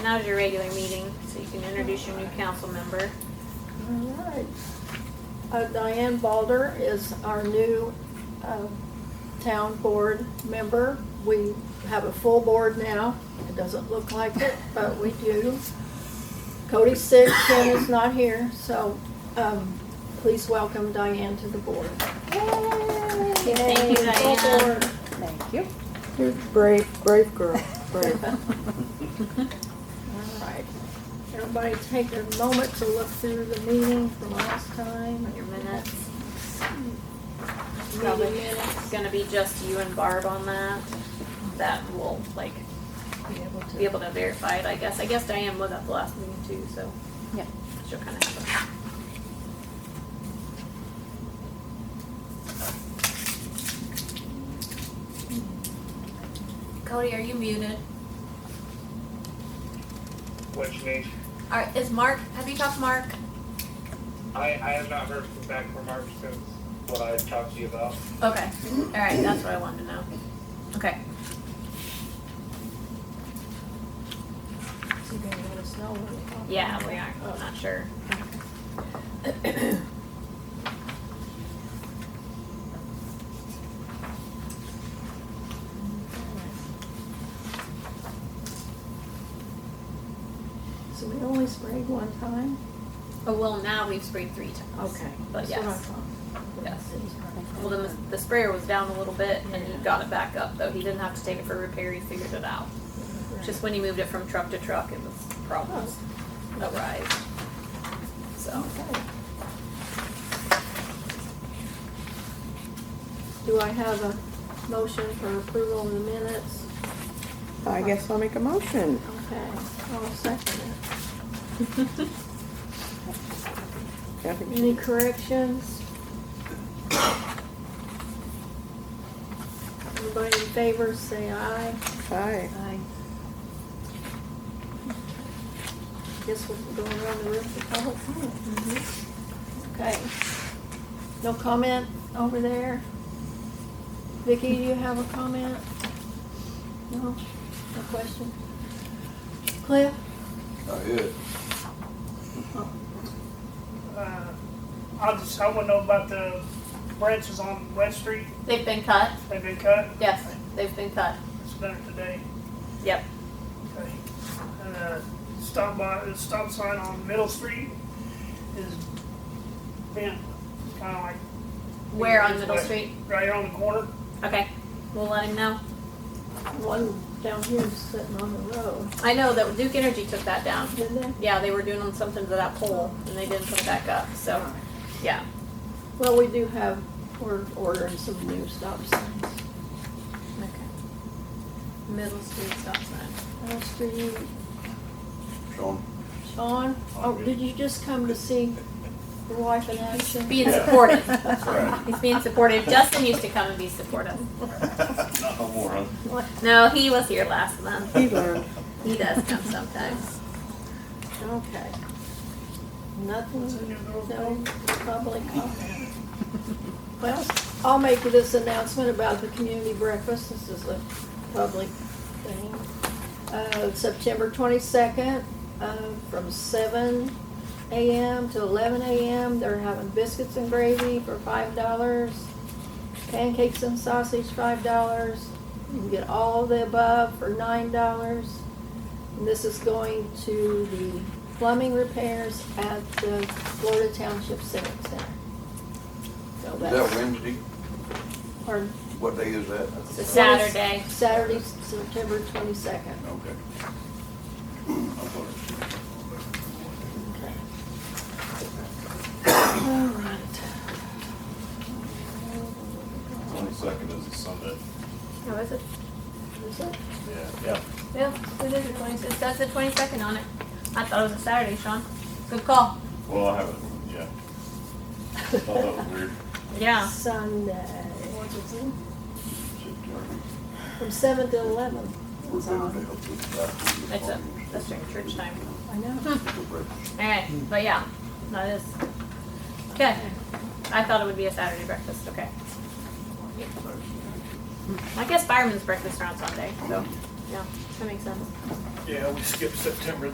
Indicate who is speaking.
Speaker 1: Now is your regular meeting, so you can introduce your new council member.
Speaker 2: All right. Uh, Diane Balder is our new uh, town board member. We have a full board now. It doesn't look like it, but we do. Cody's sick, Ken is not here, so um, please welcome Diane to the board.
Speaker 1: Thank you, Diane.
Speaker 3: Thank you.
Speaker 4: You're brave, brave girl, brave.
Speaker 2: All right. Everybody take a moment to look through the meeting from last time.
Speaker 1: Your minutes,
Speaker 2: Meeting
Speaker 1: probably
Speaker 2: minutes.
Speaker 1: it's gonna be just you and Barb on that. That will like
Speaker 2: Be able to-
Speaker 1: be able to verify it, I guess. I guess Diane was at the last meeting too, so.
Speaker 3: Yeah.
Speaker 1: She'll kind of have
Speaker 5: Cody, are you muted?
Speaker 6: What you need?
Speaker 5: Are, is Mark, have you talked to Mark?
Speaker 6: I, I have not heard from back from Mark since what I talked to you about.
Speaker 5: Okay,
Speaker 1: a-
Speaker 5: alright,
Speaker 1: That's what I wanted to know.
Speaker 5: okay.
Speaker 2: So you're gonna let us know when we talk.
Speaker 1: Yeah, we are. I'm not sure.
Speaker 2: So we only sprayed one time?
Speaker 1: Oh, well, now we've sprayed three times. But
Speaker 2: That's what I
Speaker 1: yes.
Speaker 2: thought.
Speaker 1: Yes. Well, then the- the sprayer was down a little bit and he got it back up though. He didn't have to take it for repair. He figured it out. Just when he moved it from truck to truck, it was problems that rise. So,
Speaker 2: Okay. Do I have a motion for approval of the minutes?
Speaker 4: I guess I'll make a motion.
Speaker 2: Okay, I'll second it.
Speaker 4: I think
Speaker 2: Any corrections? Everybody in favor, say aye.
Speaker 4: she's aye.
Speaker 3: Hi.
Speaker 2: Guess we're going around the room for public comment. Okay. No comment over there? Vicki, do you have a comment? No? No question? Cliff?
Speaker 7: Not good.
Speaker 6: Uh, I just, I wanna know about the branches on West Street,
Speaker 1: they've been cut?
Speaker 6: they've been cut,
Speaker 1: Yes, they've been cut.
Speaker 6: it's better today.
Speaker 1: Yep.
Speaker 6: Okay. Uh, Stop by, the stop sign on Middle Street is bent, kinda like.
Speaker 1: Where on Middle Street?
Speaker 6: Right here on the corner.
Speaker 1: Okay, we'll let him know.
Speaker 2: One down here is sitting on the road,
Speaker 1: I know that Duke Energy took that down.
Speaker 2: did they?
Speaker 1: Yeah, they were doing something to that pole and they didn't put it back up, so, yeah.
Speaker 2: Well, we do have, we're ordering some new stop signs.
Speaker 1: Okay. Middle Street stop sign.
Speaker 2: As for you,
Speaker 7: Sean,
Speaker 2: Sean, oh, did you just come to see your wife in action?
Speaker 1: Being supportive.
Speaker 7: that's right.
Speaker 1: He's being supportive. Justin used to come and be supportive.
Speaker 7: Not no more, huh?
Speaker 1: No, he was here last month.
Speaker 4: He learned.
Speaker 1: He does come sometimes.
Speaker 2: Okay. Nothing, no public comment. Well, I'll make this announcement about the community breakfast. This is a public thing. Uh, September twenty-second, uh, from seven AM to eleven AM. They're having biscuits and gravy for five dollars, pancakes and sausage, five dollars. You can get all of the above for nine dollars. And This is going to the plumbing repairs at the Florida Township Civic Center. So
Speaker 7: Is that
Speaker 2: that's,
Speaker 7: Wednesday?
Speaker 2: pardon,
Speaker 7: What day is that?
Speaker 1: It's a Saturday.
Speaker 2: Saturday, September twenty-second.
Speaker 7: Okay. I thought it
Speaker 2: All right.
Speaker 7: was- Twenty-second is a Sunday.
Speaker 1: How Oh, is it?
Speaker 2: Is it?
Speaker 7: Yeah. Yeah.
Speaker 1: Yeah, it is the twenty-sixth. That's the twenty-second on it. I thought it was a Saturday, Sean. Good call.
Speaker 7: Well, I haven't, yeah. Thought that was weird.
Speaker 2: Ah.
Speaker 1: Yeah.
Speaker 2: Sunday. From seven to eleven.
Speaker 7: We're better to help with that.
Speaker 1: That's a, that's during church time.
Speaker 2: I know.
Speaker 1: All right, but yeah, that is. Okay. I thought it would be a Saturday breakfast, okay. I guess fireman's breakfast are on Sunday, so, yeah.
Speaker 8: That makes sense.
Speaker 5: Yeah, we skipped September